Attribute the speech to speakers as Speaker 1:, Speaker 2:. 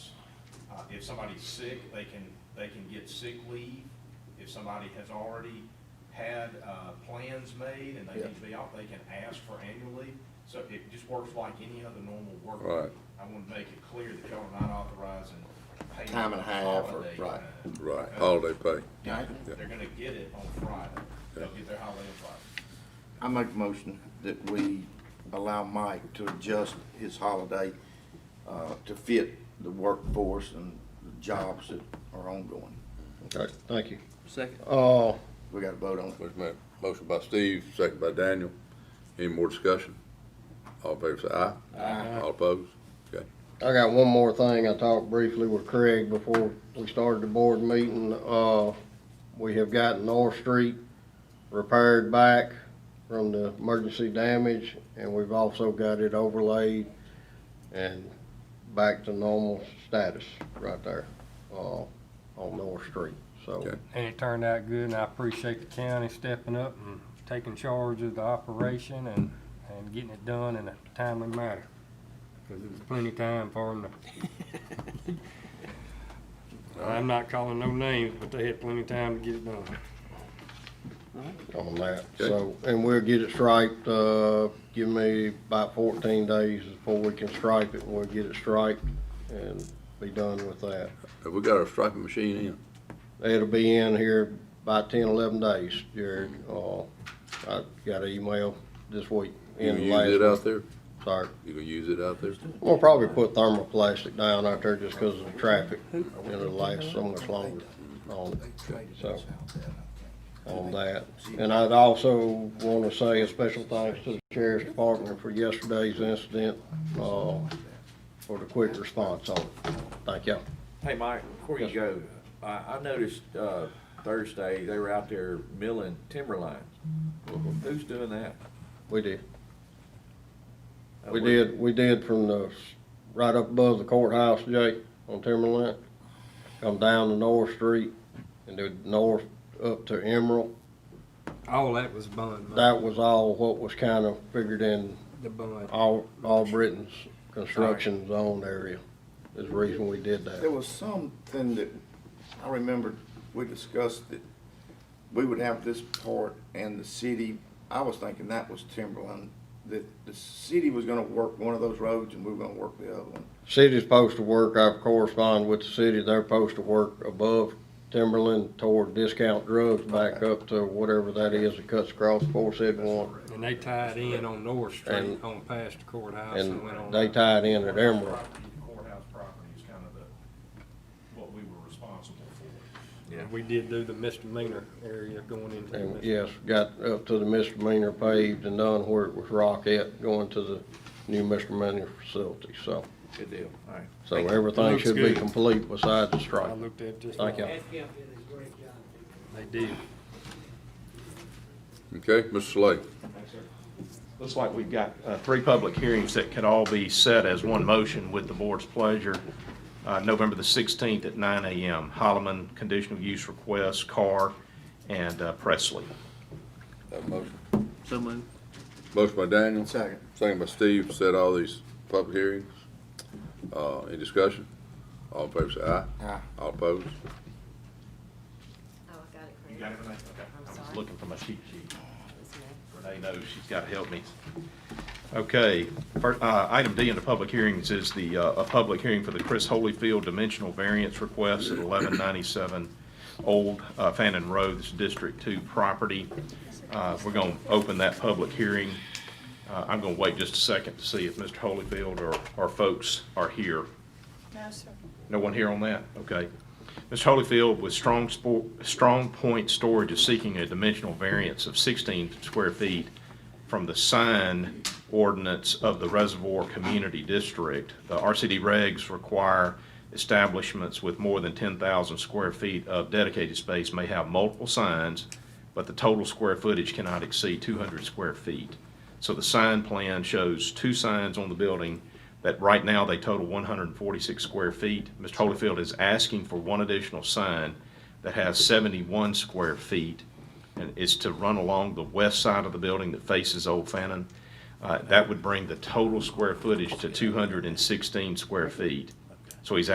Speaker 1: Uh, if somebody's sick, they can, they can get sick leave. If somebody has already had, uh, plans made and they
Speaker 2: Yeah.
Speaker 1: need to be off, they can ask for annual leave. So it just works like any other normal work.
Speaker 2: Right.
Speaker 1: I want to make it clear that y'all are not authorizing paying
Speaker 3: Time and a half or-
Speaker 1: holiday
Speaker 3: right.
Speaker 1: time.
Speaker 2: Right,
Speaker 1: Uh,
Speaker 2: holiday pay.
Speaker 3: Yeah.
Speaker 1: They're gonna get it on Friday. They'll
Speaker 2: Yeah.
Speaker 1: get their holiday on Friday.
Speaker 3: I make a motion that we allow Mike to adjust his holiday, uh, to fit the workforce and the jobs that are ongoing.
Speaker 2: Okay.
Speaker 4: Thank you.
Speaker 5: Second.
Speaker 4: Uh,
Speaker 3: We gotta vote on it.
Speaker 2: Wait a minute. Motion by Steve, second by Daniel. Any more discussion? All in favor say aye. Aye. All opposed? Okay.
Speaker 4: I got one more thing. I talked briefly with Craig before we started the board meeting. Uh, we have gotten North Street repaired back from the emergency damage, and we've also got it overlaid and back to normal status right there, uh, on North Street, so.
Speaker 2: Okay.
Speaker 6: And it turned out good, and I appreciate the county stepping up and taking charge of the operation and, and getting it done in a timely manner. Because it was plenty of time for them to. I'm not calling no names, but they had plenty of time to get it done.
Speaker 4: on that,
Speaker 2: Okay.
Speaker 4: so, and we'll get it striped, uh, give me about fourteen days before we can stripe it, and we'll get it striped and be done with that.
Speaker 2: Have we got our striping machine in?
Speaker 4: It'll be in here by 10, 11 days, Jared, uh, I got an email this week.
Speaker 2: Mm-hmm. You
Speaker 4: in the
Speaker 2: gonna use it
Speaker 4: last-
Speaker 2: out there?
Speaker 4: Sorry,
Speaker 2: You gonna use it out there?
Speaker 4: we'll probably put thermoplastic down out there just because of the traffic, it'll last so much longer on it. So, on that. And I'd also want to say a special thanks to the sheriff's department for yesterday's incident, uh, for the quick response on it. Thank y'all.
Speaker 7: Hey, Mike, before you go, I, I noticed, uh, Thursday, they were out there milling timber lines. Who's doing that?
Speaker 4: We did. We did, we did from the, s- right up above the courthouse, Jake, on Timberland. Come down to North Street and do north up to Emerald.
Speaker 6: All that was bun, man.
Speaker 4: That was all what was kind of figured in
Speaker 6: the bun.
Speaker 4: all, all Britain's construction zone area is the reason we did
Speaker 3: There
Speaker 4: that.
Speaker 3: was something that I remembered we discussed that we would have this part and the city, I was thinking that was Timberland, that the city was gonna work one of those roads and we were gonna work the other one.
Speaker 4: City's supposed to work, I've corresponded with the city, they're supposed to work above Timberland toward discount drugs back up to whatever that is that cuts across four seventy-one.
Speaker 6: And they tied in on North Street,
Speaker 4: And-
Speaker 6: on past the courthouse
Speaker 4: And
Speaker 6: and went on.
Speaker 4: they
Speaker 6: up.
Speaker 4: tied in at Emerald.
Speaker 1: Property, the Courthouse property is kind of the, what we were responsible for.
Speaker 7: Yeah.
Speaker 6: We did do the misdemeanor area going into. the
Speaker 4: And
Speaker 6: misdemeanor.
Speaker 4: yes, got up to the misdemeanor paved and done where it was rocket going to the new misdemeanor facility, so.
Speaker 7: Good deal, all right.
Speaker 4: So
Speaker 7: Thank you.
Speaker 4: everything
Speaker 6: Looks
Speaker 4: should be
Speaker 6: good.
Speaker 4: complete besides the
Speaker 6: I
Speaker 4: stripe.
Speaker 6: looked at it just.
Speaker 4: Thank
Speaker 6: now.
Speaker 4: you.
Speaker 6: They did.
Speaker 2: Okay, Mr. Slay.
Speaker 1: Looks like we've got uh, three public hearings that could all be set as one motion with the board's pleasure. Uh, November the 16th at 9 a.m., Holloman conditional use request, Carr, and uh, Presley.
Speaker 2: Have a motion.
Speaker 5: So moved.
Speaker 2: Motion by Daniel.
Speaker 3: Second.
Speaker 2: Second by Steve, set all these public hearings. Uh, any discussion? All in favor say aye.
Speaker 3: Aye.
Speaker 2: All opposed?
Speaker 8: Oh, I got it correct.
Speaker 1: You got everything? Okay.
Speaker 8: I'm
Speaker 1: I was
Speaker 8: sorry.
Speaker 1: looking for my cheat sheet.
Speaker 8: It's me.
Speaker 1: Renee knows she's got to help me. Okay, fir- uh, item D in the public hearings is the, uh, a public hearing for the Chris Holyfield dimensional variance request at 1197 Old uh, Fannin Road, this is District 2 property. Uh, We're going to open that public hearing. Uh, I'm going to wait just a second to see if Mr. Holyfield or our folks are here.
Speaker 9: No, sir.
Speaker 1: No one here on that? Okay. Mr. Holyfield with Strong Sport, Strong Point Storage is seeking a dimensional variance of 16 square feet from the sign ordinance of the Reservoir Community District. The RCD regs require establishments with more than 10,000 square feet of dedicated space may have multiple signs, but the total square footage cannot exceed 200 square feet. So the sign plan shows two signs on the building that right now they total 146 square feet. Mr. Holyfield is asking for one additional sign that has 71 square feet and is to run along the west side of the building that faces Old Fannin. Uh, That would bring the total square footage to 216 square feet. So he's